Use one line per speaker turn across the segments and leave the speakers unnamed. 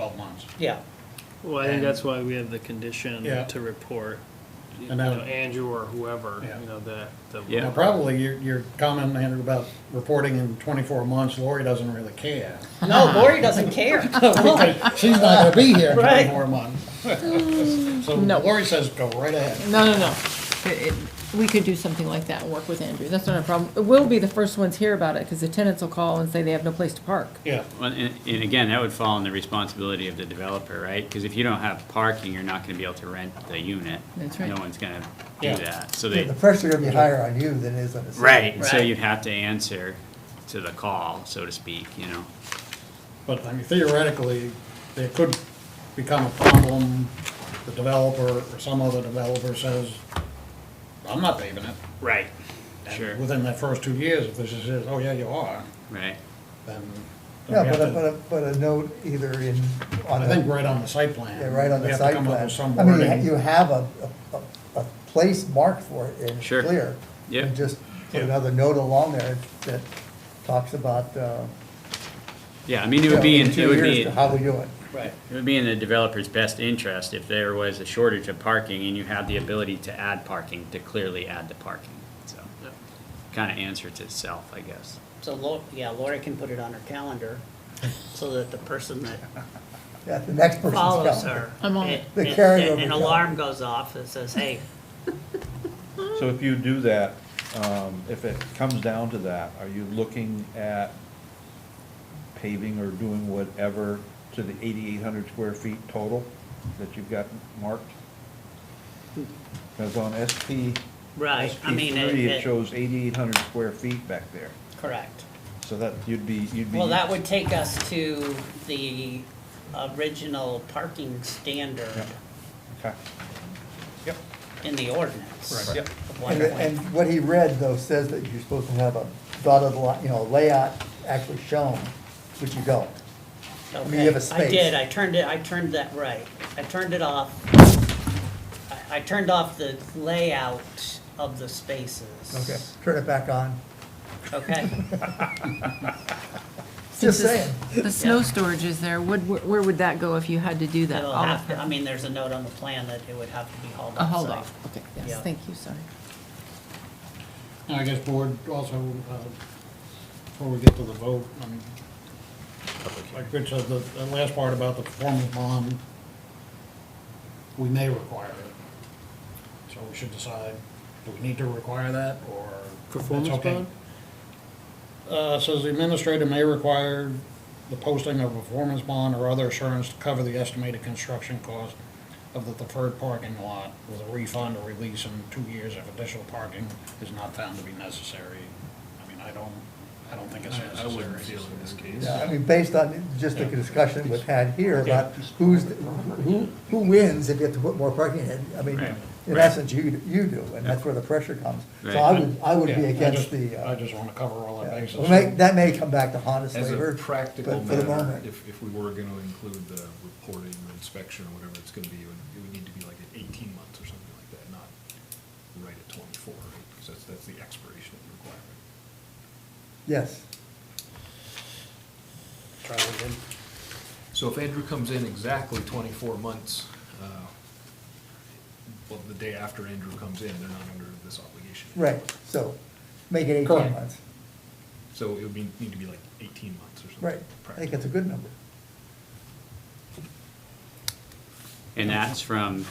twelve months.
yeah,
Well, I think that's why we have the condition
Yeah.
to report, you
And
know,
that-
Andrew or whoever,
Yeah.
you know, the, the.
Yeah.
Now, probably your, your comment, Andrew, about reporting in twenty-four months, Lori doesn't really care.
no, Lori doesn't care.
Because She's not gonna be here in
Right.
twenty-four months. So
No.
Lori says, go right ahead.
No, no, no. It- it- We could do something like that and work with Andrew. That's not a problem. We'll be the first ones here about it because the tenants will call and say they have no place to park.
Yeah,
Well, And, and again, that would fall on the responsibility of the developer, right? Because if you don't have parking, you're not gonna be able to rent the unit.
That's right.
No one's gonna
Yeah.
do that, so
Yeah,
they,
The pressure's gonna be higher on you than it is on the city.
right, so
Right.
you'd have to answer to the call, so to speak, you know?
but I mean theoretically, there could become a problem, the developer or some other developer says, I'm not paving it.
Right.
And
Sure,
Within that first two years, if this is, oh yeah, you are,
right,
then.
Yeah,
we have
but a,
to-
but a, but a note either in, on
I
the,
think right on the site plan.
yeah, right on
We
the
have to
site
come up
plan.
with some
I mean, you ha-
wording.
you have a, a, a- a place marked for it and it's
Sure.
clear.
Yep.
And just put
Yeah.
another note along there that talks about, uh.
yeah, I mean, it would be,
you know,
in
in two
it would
years
be,
to
it
How we do it.
Right.
would be in the developer's best interest if there was a shortage of parking and you had the ability to add parking, to clearly add the parking, so. Kinda answers itself, I guess.
So Lori, yeah, Lori can put it on her calendar so that the person that
Yeah, the next person's
follows
coming.
her.
I'm on
it-
it.
The
it-
carryover
An
calendar.
alarm goes off that says, hey,
So if you do that, um, if it comes down to that, are you looking at paving or doing whatever to the eighty-eight hundred square feet total that you've got marked? Because on SP,
right, I
SP
mean, it-
three, it
it,
shows eighty-eight hundred square feet back there,
correct.
so that you'd be, you'd be.
Well, that would take us to the original parking standard
Okay. Yep,
in the ordinance.
Right. Yep.
of
And, the-
1.5.
and what he read though says that you're supposed to have a dotted line, you know, layout actually shown, which you don't. mean, you have a
Okay, I
space.
did, I turned it, I turned that, right, I turned it off. I, I turned off the layout of the spaces.
Okay, turn it back on.
Okay,
Just
Since
saying.
The the snow storage is there. Would, where- where would that go if you had to do that?
it'll
All
have,
of
to-
it?
I mean, there's a note on the plan that it would have to be hauled
A
off.
hold
site.
off. Okay,
Yeah.
yes, thank you, sorry.
And I guess board also, uh, before we get to the vote, I mean, like Rich said, the, the last part about the performance bond, we may require it. So we should decide, do we need to require that, or? it's
Performance
okay?
bond?
Uh, it says the administrator may require the posting of a performance bond or other assurance to cover the estimated construction cost of the deferred parking lot with a refund or release in two years if additional parking is not found to be necessary. I mean, I don't, I don't think it's
I
necessary.
wouldn't feel in this case.
Yeah, I mean, based on just the discussion we've had here about who's, who, who wins if you have to put more parking in. I mean,
Right.
in essence, you, you do, and that's where the pressure comes. So I
Right.
would, I would be
Yeah, I
against
just-
the,
I
uh,
just want to cover all the
yeah.
bases.
Well, may- that may come back to haunt us
As
later,
a
but
practical
for the
matter,
moment-
if, if we were gonna include the reporting or inspection or whatever it's gonna be, it would, it would need to be like at eighteen months or something like that, not right at twenty-four, right? Because that's, that's the expiration of the requirement.
Yes.
Try it again.
So if Andrew comes in exactly twenty-four months, uh, well, the day after Andrew comes in, they're not under this obligation.
Right, so make it eighteen
Correct.
months.
So it would be, need to be like eighteen months or something.
Right, I think that's a good number.
And that's from,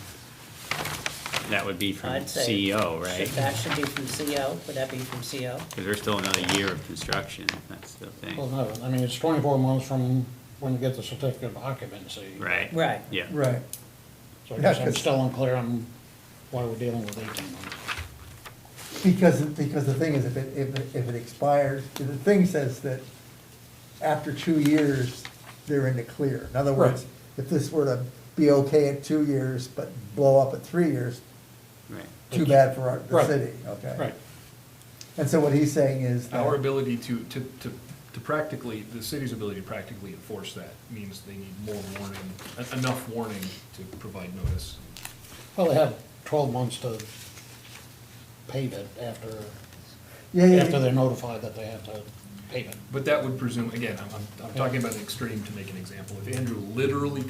that would be from
I'd say
CEO,
should-
right?
That should be from CO, would that be from E CO?
Because there's still another year of construction, that's the
Well,
thing,
no, I mean, it's twenty-four months from when you get the certificate of occupancy.
right?
Right.
Yeah.
Right.
So I guess
Yeah,
I'm
'cause-
still unclear on why we're dealing with eighteen months.
Because, because the thing is, if it, if it, if it expires, the thing says that after two years, they're in the clear. In other words, if this were to be okay at two years, but blow up at three years,
Right.
too bad for our, the
Right.
city, okay?
Right.
And so what he's saying is that.
Our ability to, to, to, to practically, the city's ability to practically enforce that means they need more warning, en- enough warning to provide notice.
Well, they have twelve months to pave it after,
Yeah, yeah,
after they're notified that they have to pave it.
But that would presume, again, I'm, I'm- I'm talking about an extreme to make an example. If Andrew literally